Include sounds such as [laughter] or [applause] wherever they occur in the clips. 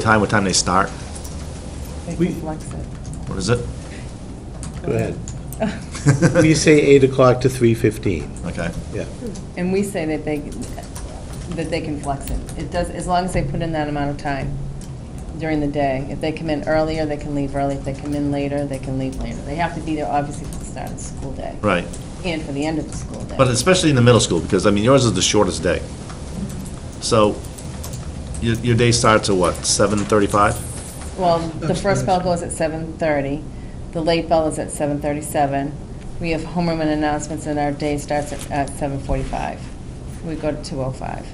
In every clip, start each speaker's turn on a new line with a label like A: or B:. A: Time, what time they start?
B: They
C: We-
B: can flex it.
A: What is it?
C: Go ahead. [laughs] We say 8 o'clock to 3:15,
A: Okay.
C: yeah.
B: And we say that they, that they can flex it. It does, as long as they put in that amount of time during the day. If they come in earlier, they can leave early. If they come in later, they can leave later. They have to be there obviously for the start of the school day.
A: Right.
B: And for the end of the school day.
A: But especially in the middle school, because, I mean, yours is the shortest day. So your, your day starts at what, 7:35?
B: Well, the first bell goes at seven thirty, the late bell is at seven thirty-seven. We have homeroom and announcements, and our day starts at, at seven forty-five. We go to two oh five.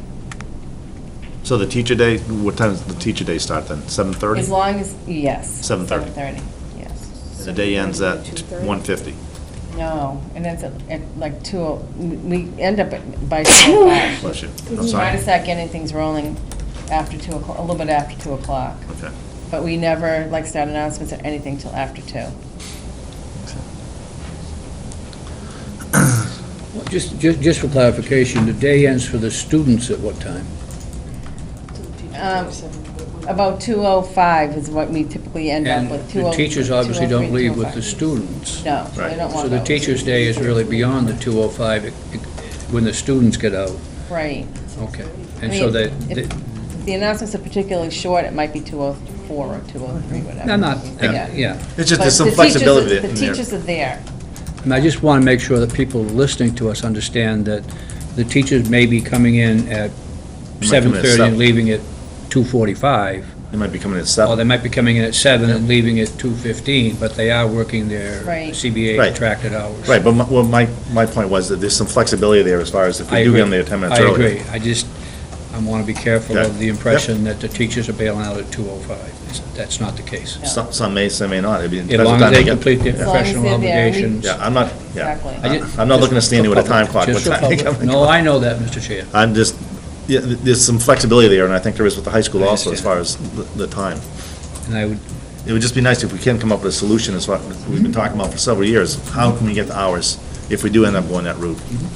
A: So the teacher day, what time does the teacher day start then? 7:30?
B: As long as, yes.
A: 7:30.
B: Seven thirty, yes.
A: And the day ends at 1:50.
B: No, and it's at, at like two, oh- we we end up at- by two o'clock.
A: Bless you. I'm
B: We Try to
A: sorry.
B: start getting things rolling after two o'clock, a little bit after two o'clock.
A: Okay.
B: But we never, like, start announcements or anything till after two.
D: Just, ju- just for clarification, the day ends for the students at what time?
B: Um, About 2:05 is what we typically end up
D: And
B: with.
D: the
B: 2:00
D: teachers obviously
B: 2:03,
D: don't leave with
B: 2:05.
D: the students.
B: No,
A: Right.
B: they don't
D: So
B: want
D: the
B: those.
D: teacher's day is really beyond the 2:05, it- it- when the students get out.
B: Right.
D: Okay.
B: I
D: And so
B: mean,
D: that,
B: if-
D: that-
B: if The announcements are particularly short, it might be 2:04 or 2:03, whatever.
D: no, not,
B: Yeah.
D: yeah.
A: It's just,
B: But
A: there's some
B: the teachers are-
A: flexibility in
B: The
A: there.
B: teachers are there.
D: And I just want to make sure that people listening to us understand that the teachers may be coming in at
A: They might come in at
D: 7:30
A: seven.
D: and leaving at 2:45.
A: They might be coming at
D: Or they
A: 7.
D: might be coming in at seven and leaving at 2:15, but they are working their
B: Right.
D: CBA
A: Right.
D: contracted hours.
A: Right, but my, well, my, my point was that there's some flexibility there as far as if
D: I
A: we do
D: agree.
A: get them there 10 minutes early.
D: I agree. I just, I want to be careful
A: Okay.
D: of the impression that the teachers are bailing out at 2:05. It's- That's not the case.
A: Some, some may, some may not. I mean,
D: As
A: depends what
D: long as
A: time
D: they
A: get-
D: complete their
B: As long as
D: professional
B: they're there, we-
D: obligations.
A: Yeah, I'm not, yeah.
B: Exactly.
D: I ju-
A: I'm not looking to
D: just
A: stand here
D: for
A: with a time
D: public-
A: clock.
D: just
A: What
D: for
A: time they [laughs]
D: public.
A: come?
D: No, I know that, Mr. Chair.
A: I'm just, yeah, th- there's some flexibility there, and I think there is with the high school
D: I
A: also, as
D: understand.
A: far as the, the time.
D: And I would,
A: It would just be nice if we can come up with a solution, as what we've been talking about for several years. How can we get the hours if we do end up going that route?
D: Mm-hmm.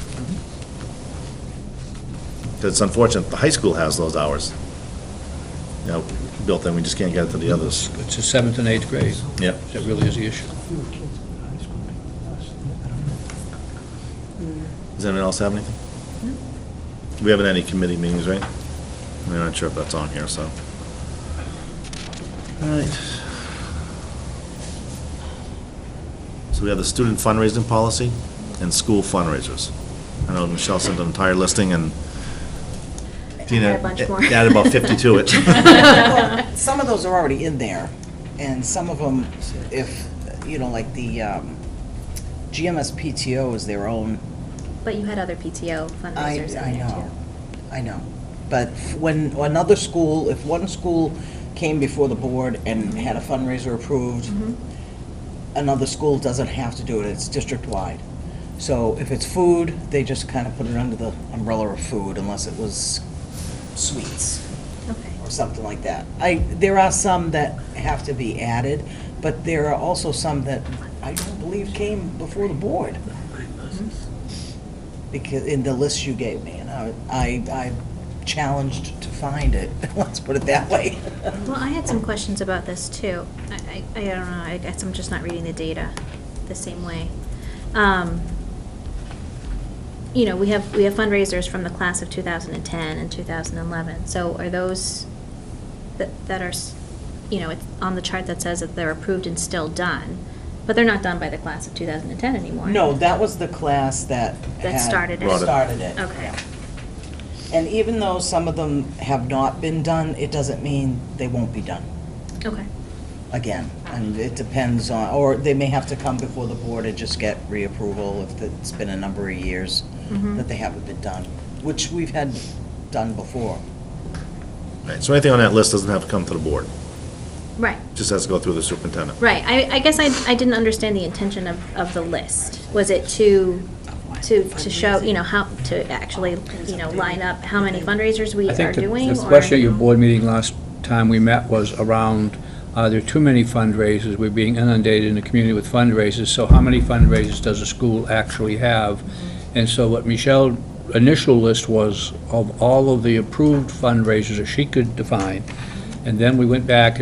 A: 'Cause it's unfortunate, the high school has those hours, you know, built in, we just can't get it to the others.
D: it's the seventh and eighth grade.
A: Yep.
D: That really is the issue.
A: Does anyone else have anything? We haven't had any committee meetings, right? I'm not sure if that's on here, so. All right. So we have the student fundraising policy and school fundraisers. I know Michelle sent an entire listing and Tina
E: had a bunch more.
A: added about 50 to
E: [laughs]
A: it.
F: Some of those are already in there, and some of them, if, you know, like the um, GMS PTO is their own.
E: But you had other PTO
F: I,
E: fundraisers
F: I
E: in there
F: know,
E: too.
F: I know. But when another school, if one school came before the board and
E: Mm-hmm.
F: had a fundraiser approved, another school doesn't have to do it, it's district-wide. So if it's food, they just kind of put it under the umbrella of food unless it was sweets.
E: Okay.
F: or something like that. I, there are some that have to be added, but there are also some that I don't believe came before the board. Because, in the list you gave me, and I, I I challenged to find it, [laughs] let's put it that way.
E: Well, I had some questions about this too. I, I, I don't know, I guess I'm just not reading the data the same way. Um, You know, we have, we have fundraisers from the class of 2010 and 2011. So are those that, that are, s- you know, it's on the chart that says that they're approved and still done, but they're not done by the class of 2010 anymore?
F: No, that was the class that.
E: That
F: had-
E: started
A: it.
F: Started it.
E: Okay.
F: And even though some of them have not been done, it doesn't mean they won't be done.
E: Okay.
F: again, and it depends on, or they may have to come before the board and just get reapproval if it's been a number of years
E: Mhm.
F: that they haven't been done, which we've had done before.
A: Right, So anything on that list doesn't have to come to the board,
E: Right.
A: just has to go through the superintendent.
E: Right, I, I guess I, I didn't understand the intention of, of the list. Was it to, to, to show, you know, how, to actually, you know, line up how many fundraisers we
D: I
E: are
D: think the-
E: doing?
D: the
E: or-
D: question at your board meeting last time we met was around, are there too many fundraisers? We're being inundated in the community with fundraisers, so how many fundraisers does a school actually have? And so what Michelle's initial list was of all of the approved fundraisers that she could define, And then we went back and